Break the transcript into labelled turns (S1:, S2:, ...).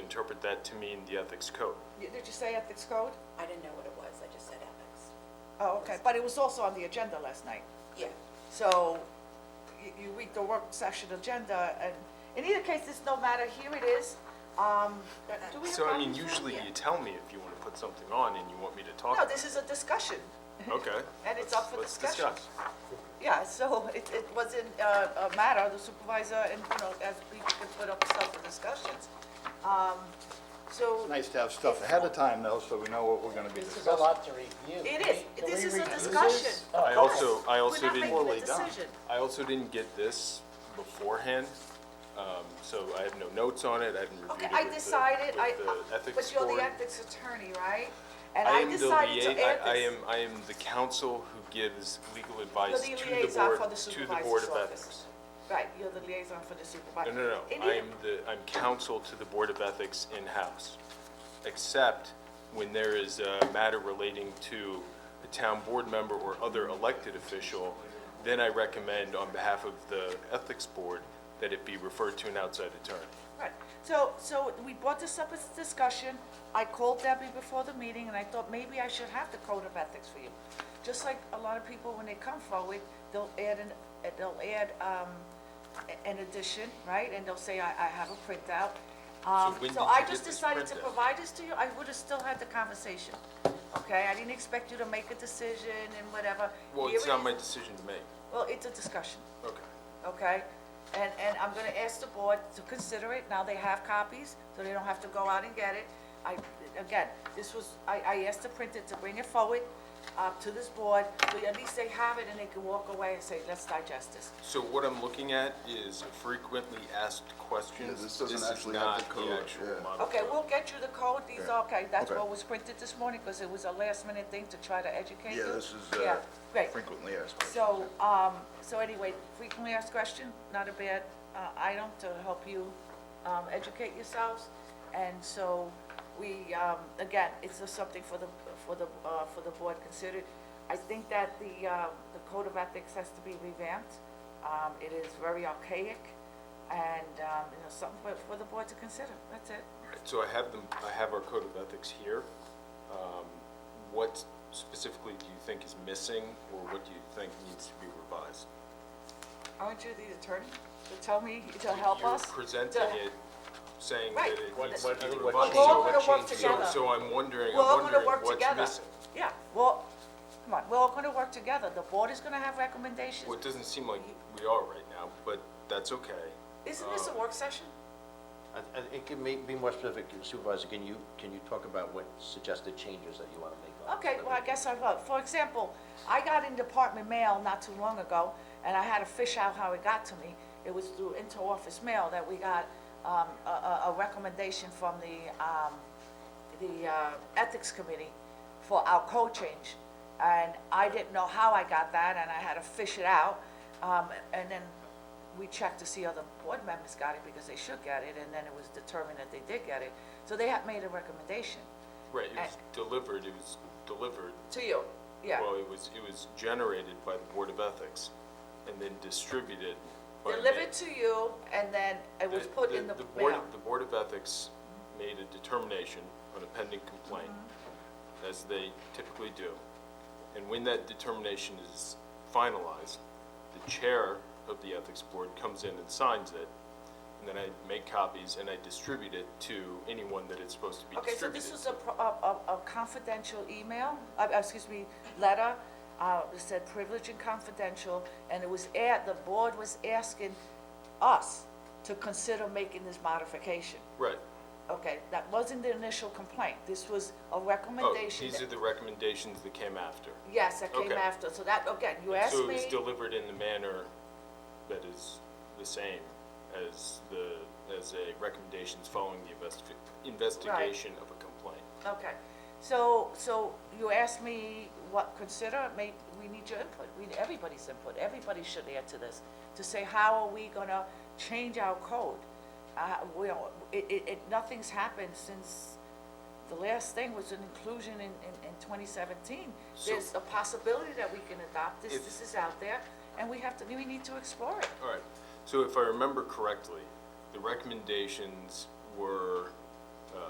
S1: interpret that to mean the ethics code.
S2: You- Did you say ethics code?
S3: I didn't know what it was, I just said ethics.
S2: Oh, okay, but it was also on the agenda last night.
S3: Yeah,
S2: So you- you read the work session agenda, and in either case, it's no matter, here it is. Um, do we have
S1: So I mean,
S2: copies of it?
S1: usually you tell me if you want to put something on and you want me to talk.
S2: No, this is a discussion.
S1: Okay.
S2: and it's up for
S1: Let's-
S2: discussion.
S1: Let's discuss.
S2: Yeah, so it, it was in, uh, a matter, the supervisor, and, you know, as people can put up stuff for discussions. Um, so
S4: Nice to have stuff ahead of time, though, so we know what we're gonna be
S5: This is a
S4: discussing.
S5: lot to review.
S2: it is,
S5: Can we
S2: this is a
S5: review this?
S2: discussion. Oh, of
S1: I also,
S2: course.
S1: I also didn't.
S2: We're not making
S4: Poorly
S2: a
S4: done.
S2: decision.
S1: I also didn't get this beforehand, um, so I have no notes on it, I haven't reviewed it
S2: Okay,
S1: with the,
S2: I decided, I,
S1: with the ethics
S2: but you're
S1: board.
S2: the ethics attorney, right? And
S1: I
S2: I
S1: am the
S2: decided to
S1: lia-
S2: add
S1: I, I
S2: this.
S1: am, I am the counsel who gives legal advice to
S2: You're
S1: the
S2: the
S1: board,
S2: liaison for the
S1: to the board
S2: supervisor's
S1: of ethics.
S2: office. Right, you're the liaison for the supervisor.
S1: No, no, no,
S2: In
S1: I
S2: either-
S1: am the, I'm counsel to the board of ethics in-house, except when there is a matter relating to a town board member or other elected official, then I recommend on behalf of the ethics board that it be referred to an outside attorney.
S2: Right, so, so we brought this up as a discussion, I called Debbie before the meeting, and I thought maybe I should have the code of ethics for you. Just like a lot of people, when they come forward, they'll add an, uh, they'll add, um, a- an addition, right, and they'll say, I, I have a printout. Um,
S1: when
S2: so
S1: did
S2: I
S1: you
S2: just
S1: get this
S2: decided to
S1: printout?
S2: provide this to you, I would've still had the conversation, okay? I didn't expect you to make a decision and whatever.
S1: Well,
S2: Here
S1: it's
S2: it
S1: not
S2: is.
S1: my decision to make.
S2: Well, it's a discussion
S1: Okay.
S2: okay? And, and I'm gonna ask the board to consider it, now they have copies, so they don't have to go out and get it. I, again, this was, I, I asked the printer to bring it forward, uh, to this board, so at least they have it and they can walk away and say, let's digest this.
S1: So what I'm looking at is frequently asked questions.
S6: Yeah, this doesn't
S1: is
S6: actually have the
S1: not
S6: code,
S1: actual
S6: yeah.
S1: model
S2: Okay,
S1: code.
S2: we'll get you the code, these are, okay, that's
S6: Okay.
S2: what was printed this morning, because it was a last minute thing to try to educate you.
S6: Yeah, this is
S2: Yeah,
S6: uh,
S2: great.
S6: frequently asked questions.
S2: So, um, so anyway, frequently asked question, not a bad, uh, item to help you, um, educate yourselves. And so we, um, again, it's just something for the, for the, uh, for the board considered. I think that the, uh, the code of ethics has to be revamped. Um, it is very archaic and, um, you know, something for, for the board to consider, that's it.
S1: So I have them, I have our code of ethics here. Um, What specifically do you think is missing, or what do you think needs to be revised?
S2: Aren't you the attorney to tell me, to help us?
S1: You're presenting
S2: To-
S1: it, saying that
S2: Right.
S1: it
S2: What-
S1: needs to
S5: what- I
S1: be
S5: think what
S1: revised.
S2: We're all
S5: what
S2: gonna work
S5: changed here?
S2: together.
S1: So, so I'm wondering,
S2: We're all
S1: I'm
S2: gonna
S1: wondering
S2: work
S1: what's
S2: together.
S1: missing?
S2: Yeah, well, come on, we're all gonna work together. The board is gonna have recommendations.
S1: Well, it doesn't seem like we are right now, but that's okay.
S2: Isn't this a work session?
S5: I- I- It can ma- be more specific, Supervisor, can you, can you talk about what suggested changes that you want to make? on
S2: Okay,
S5: the-
S2: well, I guess I will. For example, I got in department mail not too long ago, and I had to fish out how it got to me. It was through interoffice mail that we got, um, a, a, a recommendation from the, um, the, uh, ethics committee for our code change. And I didn't know how I got that, and I had to fish it out. Um, and then we checked to see other board members got it because they should get it, and then it was determined that they did get it. So they had made a recommendation
S1: Right, it was delivered, it was delivered,
S2: to you, yeah.
S1: well, it was, it was generated by the Board of Ethics, and then distributed by me.
S2: delivered to you, and then it was
S1: The-
S2: put in the
S1: Board,
S2: mail.
S1: the Board of Ethics made a determination on a pending complaint,
S2: Mm-hmm.
S1: as they typically do. And when that determination is finalized, the chair of the Ethics Board comes in and signs it, and then I make copies and I distribute it to anyone that it's supposed to be
S2: Okay, so
S1: distributed.
S2: this was a, pro- a, a- a confidential email, uh, uh, excuse me, letter, uh, it said privileged and confidential, and it was at, the board was asking us to consider making this modification.
S1: Right.
S2: Okay, that wasn't the initial complaint, this was a
S1: Oh,
S2: recommendation.
S1: these
S2: that-
S1: are the recommendations that came after.
S2: Yes, that came
S1: okay.
S2: after, so that, again, you asked
S1: So
S2: me,
S1: it's delivered in the manner that is the same as the, as a recommendations following the investi- investigation of a complaint.
S2: okay. So, so you asked me what, consider, may, we need your input, we, need everybody's input, everybody should add to this, to say, how are we gonna change our code? Uh, we, don't- it, it, it, nothing's happened since, the last thing was an inclusion in, in, in twenty seventeen.
S1: So-
S2: There's a possibility that we can adopt this,
S1: If-
S2: this is out there, and we have to, we need to explore it.
S1: All right, so if I remember correctly, the recommendations were